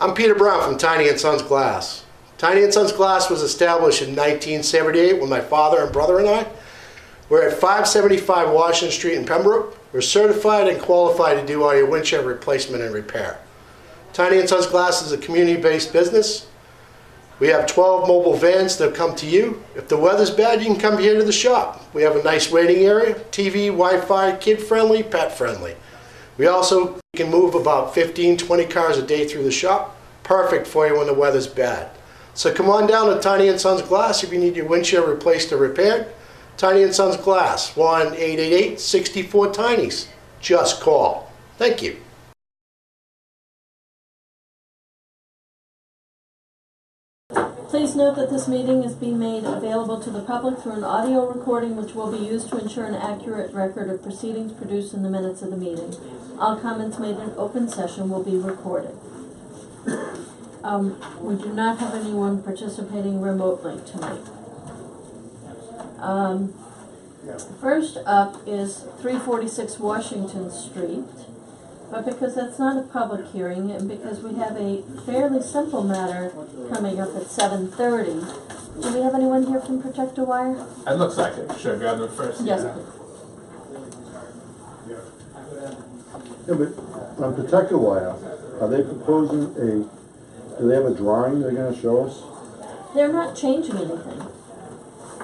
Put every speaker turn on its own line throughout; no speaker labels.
I'm Peter Brown from Tiny and Sons Glass. Tiny and Sons Glass was established in 1978 when my father and brother and I were at 575 Washington Street in Pembroke. We're certified and qualified to do all your windshield replacement and repair. Tiny and Sons Glass is a community-based business. We have 12 mobile vans that come to you. If the weather's bad, you can come here to the shop. We have a nice waiting area, TV, Wi-Fi, kid-friendly, pet-friendly. We also can move about 15, 20 cars a day through the shop. Perfect for you when the weather's bad. So come on down to Tiny and Sons Glass if you need your windshield replaced or repaired. Tiny and Sons Glass, 1-888-64-TINIES. Just call. Thank you.
Please note that this meeting is being made available to the public through an audio recording which will be used to ensure an accurate record of proceedings produced in the minutes of the meeting. All comments made in open session will be recorded. Um, we do not have anyone participating remotely tonight. Um, first up is three forty-six Washington Street. But because that's not a public hearing, and because we have a fairly simple matter coming up at seven thirty, do we have anyone here from Protector Wire?
It looks like it. Should I grab them first?
Yes, please.
Yeah, but on protector wire, are they proposing a, do they have a drawing they're gonna show us?
They're not changing anything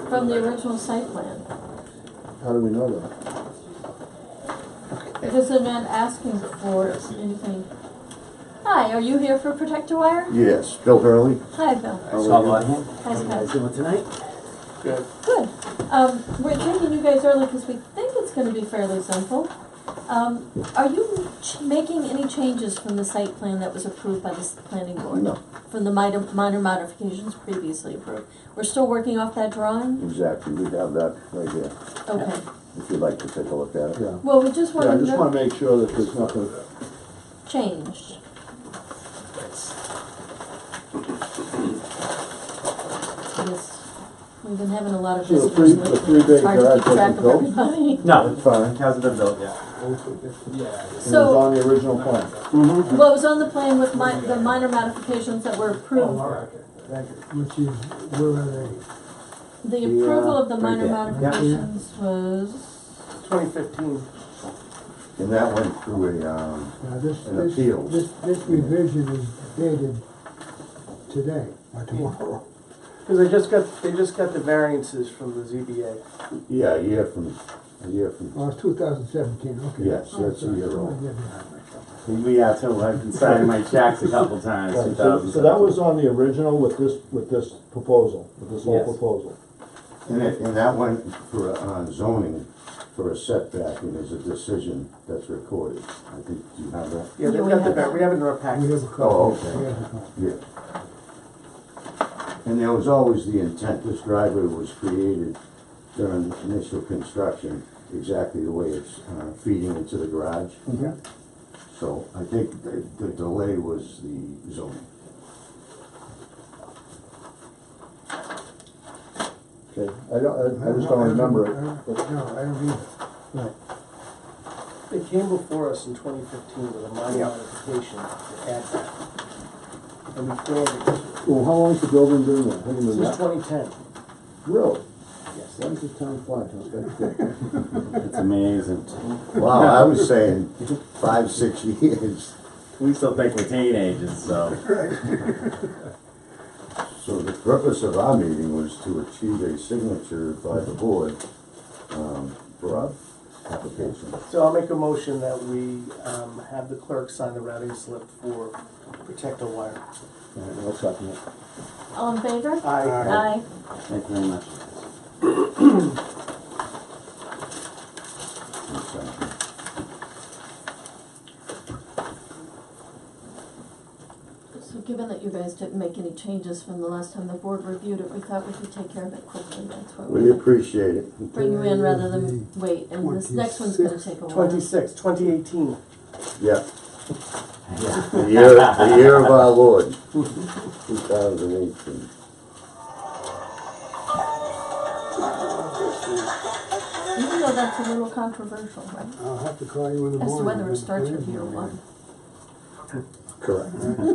from the original site plan,
How do we know that?
because they're not asking for anything. Hi, are you here for Protector Wire?
Yes, Bill Hurley.
Hi, Bill. Hi,
How you guys
Scott.
doing tonight?
Good. Um, we're taking you guys early because we think it's gonna be fairly simple. Um, are you ch- making any changes from the site plan that was approved by the s- planning board?
No.
From the minor, minor modifications previously approved? We're still working off that drawing?
Exactly, we have that right here,
Okay.
if you'd like to take a look at it.
Yeah,
Well, we just
yeah, I
wanna
just wanna
know,
make sure that there's nothing,
changed. Yes. We've been having a lot of
So the
visitors
three- the
lately.
three-bay
It's hard to
garage
keep track of
wasn't built?
everybody.
No,
it's fine, it
hasn't been built yet.
Yeah.
was
So-
on the original plan.
Well, it was on the plan with my, the minor modifications that were
Oh,
approved,
Which is, where are they?
the approval of the
right
minor
there.
modifications was,
Twenty fifteen.
And that went through a, um,
Now, uh, this,
And
this,
appeals.
this, this revision is dated today or tomorrow.
Because they just got, they just got the variances from the ZBA.
yeah, a year from, a year from,
Oh, it's two thousand seventeen, okay.
Yes, that's a
Oh,
year
sorry.
old.
Yeah, too, I've been signing my checks a couple times,
Right,
two
So
thousand.
so that was on the original with this, with this proposal, with this whole
Yes.
proposal.
and it, and that went for, uh, zoning for a setback, and there's a decision that's recorded. I think, do you have that?
Yeah, they've
we
got the,
have
var-
that.
we have it in our package.
We have a copy.
Oh, okay.
We have a copy.
Yeah. And there was always the intent, this driveway was created during initial construction, exactly the way it's, uh, feeding into the garage. So I think the, the delay was the zoning.
Okay, I don't, I- I just don't remember
I
it.
don't- No, I don't either. Right.
They came before us in twenty fifteen with a minor modification to add that. And we granted
Well, how long's the building been there? Haven't
it.
been that-
Since twenty ten,
Really?
yes.
When's this town fly, huh? That's good.
It's amazing.
Wow, I was saying five, six years.
We still think we're teenagers, so.
So the purpose of our meeting was to achieve a signature by the board, um, for our application.
So I'll make a motion that we, um, have the clerk sign the routing slip for Protector Wire.
All right, I'll second it.
all in favor?
I,
Aye.
Thank you very much.
So given that you guys didn't make any changes from the last time the board reviewed it, we thought we could take care of it quickly, that's why
We
we
appreciate it.
bring you in rather than wait, and this next one's gonna take a while.
twenty-six, twenty eighteen.
Yeah. The year, the year of our Lord, two thousand eighteen.
Even though that's a little controversial, right?
I'll have to call you in the
As to
morning.
whether it starts
Believe
with
me,
year
man.
one.
Correct.